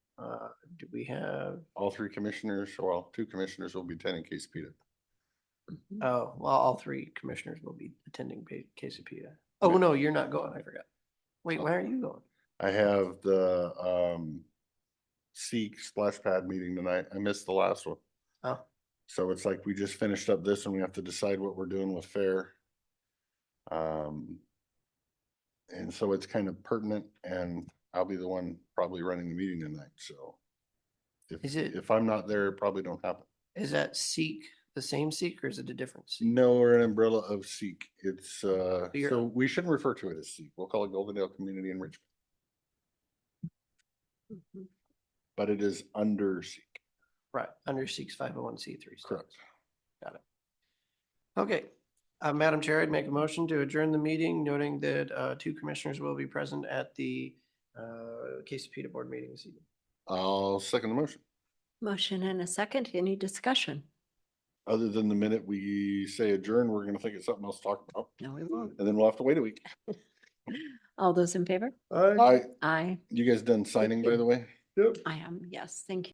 Uh, we have? All three commissioners, well, two commissioners will be attending Quesapita. Hmm. Oh, well, all three commissioners will be attending Pa- Quesapita. Oh, Yeah. no, you're not going. I forgot. Oh. Wait, why are you going? I have the um Seek Splash Pad meeting tonight. I missed the last one. Oh. So it's like we just finished up this and we have to decide what we're doing with fair. Um. And so it's kind of pertinent and I'll be the one probably running the meeting tonight, so. If Is it- if I'm not there, it probably don't happen. Is that Seek the same Seek or is it a different Seek? No, we're an umbrella of Seek. It's uh, You're- so we shouldn't refer to it as Seek. We'll call it Goldendale Community Enrichment, Mm-hmm. but it is under Seek. Right, under Seek's five oh one C three. Correct. Okay, uh, Madam Chair, I'd make a motion to adjourn the meeting, noting that, uh, two commissioners will be present at the, uh, Quesapita Board meeting this evening. I'll second the motion. Motion and a second. Any discussion? Other than the minute we say adjourn, we're gonna think it's something else to talk about, No, we won't. and then we'll have to wait a week. All those in favor? I, Aye, you guys done signing, by the way? I am. Yes, thank you.